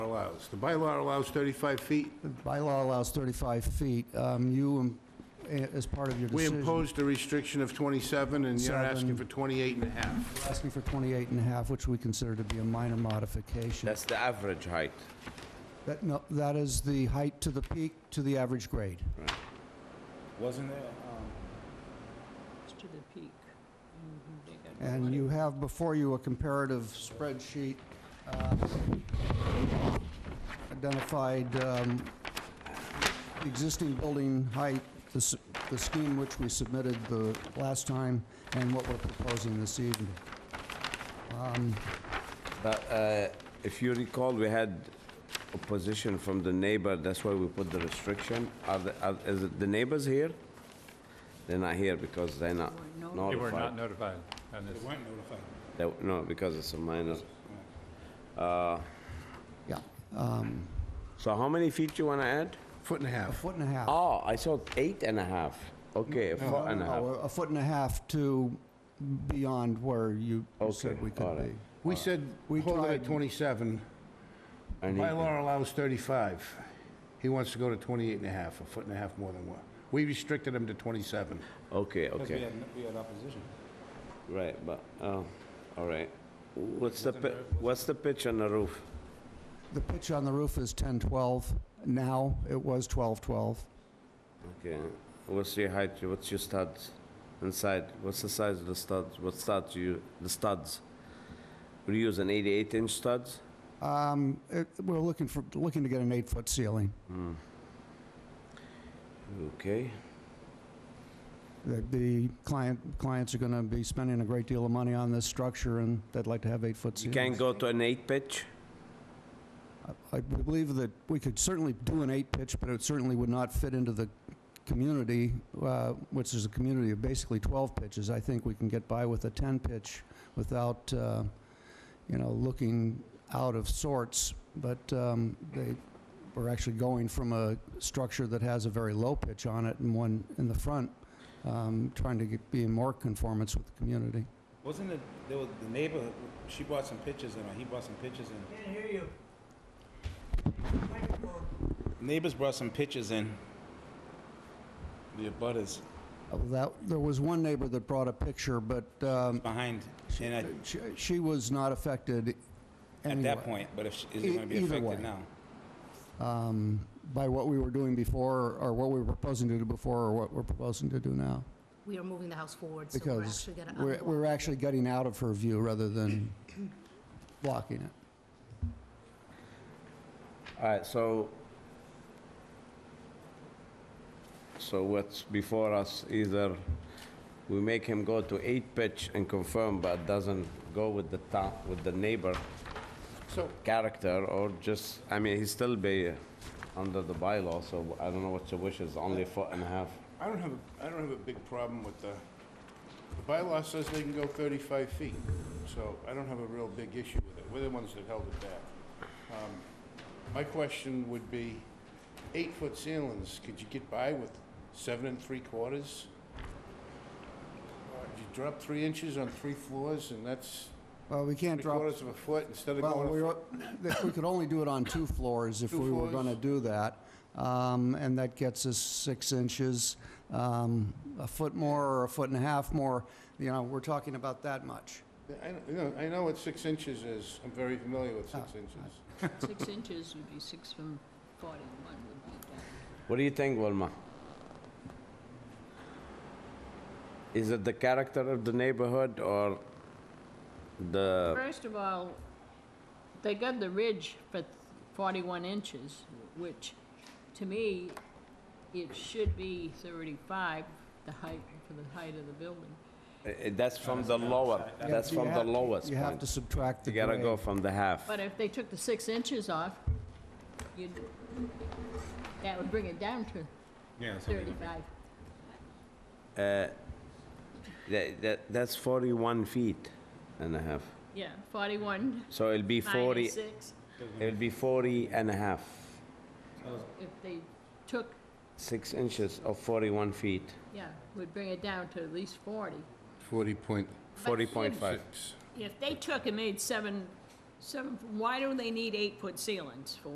allows? The bylaw allows 35 feet. The bylaw allows 35 feet. Um, You, um, a- as part of your We decision... imposed a restriction of 27, and you're asking for Seven. 28 and a half. you're Asking for 28 and a half, which we consider to be a minor modification. That's the average height. That, no, that is the height to the peak to the average grade. Wasn't there, um, It's to the peak. Mm-hmm. They got And you have before you a comparative spreadsheet uh, identified um, existing building height, the s- the scheme which we submitted the last time, and what we're proposing this evening. But uh, if you recall, we had opposition from the neighbor, that's why we put the restriction. Are, the- are- is it the neighbors here? They're not here because they're not They were not notified. notified on this. weren't notified. They- No, because it's a minor. Yeah, So how many feet you wanna add? Foot and a a half. foot and a half. Oh, I saw eight and a half. Okay, a foot and a half. Uh. No, Oh, a foot and a half to beyond where you you said Okay, we all could right. be. We said, We hold it at tried- 27. I need that. Bylaw allows 35. He wants to go to 28 and a half, a foot and a half more than one. We restricted him to 27. Okay, Because we okay, had, we had opposition. right, but, oh, all right. What's the, pi- what's the pitch on the roof? The pitch on the roof is 10-12 now. It was 12-12. Okay, what's your height, what's your studs inside, what's the size of the studs, what studs you, the studs? We use an eighty-eight inch studs? Um, it- We're looking for, looking to get an eight-foot ceiling. Okay, The- The client, clients are going to be spending a great deal of money on this structure, and they'd like to have eight-foot you can ceilings. go to an eight pitch? I we believe that we could certainly do an eight-pitch, but it certainly would not fit into the community, uh, which is a community of basically 12 pitches. I think we can get by with a 10-pitch without, uh, you know, looking out of sorts, but um, they, we're actually going from a structure that has a very low pitch on it and one in the front, um, trying to get- be in more conformance with the community. Wasn't it, there was, the neighbor, she bought some pictures and, uh, he bought some pictures and. Can't hear you. Neighbors brought some pictures in. The abutters Uh, That, there was one neighbor that brought a picture, but um, behind, and at, She, she was not affected at anyway that point, but if, she- is E- it gonna be either affected way. now? um, by what we were doing before, or what we were proposing to do before, or what we're proposing to do now. We are moving the house forward, so we're Because actually gonna. we're, unblock we're it. actually getting out of her view rather than blocking it. All right, so, so what's before us, either we make him go to eight pitch and confirm, but doesn't go with the town, with the neighbor So character, or just, I mean, he still be under the bylaw, so I don't know what your wish is, only a foot and a half. I don't have, a I don't have a big problem with the, the bylaw says they can go 35 feet, so I don't have a real big issue with it. We're the ones that held it back. Um, My question would be, eight-foot ceilings, could you get by with seven and three quarters? Uh, You drop three inches on three floors, and that's Well, we can't three drop, quarters of a foot instead of well, going, we, a were- that we could only do it on two floors if Two we were floors? gonna do that. Um, and that gets us six inches, um, a foot more or a foot and a half more, you know, we're talking about that much. foot- I don't- you know, I know what six inches is. I'm very familiar with Oh. six inches. Six inches would be six from forty-one would be that. What do you think, Wilma? Is it the character of the neighborhood or the, First of all, they got the ridge for forty-one inches, which, to me, it should be thirty-five, the height, for the height of the building. eh, eh, that's from the lower, that's You from the have- lowest You have to point. subtract the You gotta grade. go from the half. But if they took the six inches off, you'd, that would bring it down to Yeah. so they- thirty-five. Uh, That, that, that's 41 feet and a half. Yeah, forty-one So it'll be 40, minus six, it'll be 40 and a half, if they took six inches of 41 feet, Yeah, would bring it down to at least 40. 40.6. 40.5. If they took and made seven, seven, why do they need eight-foot ceilings for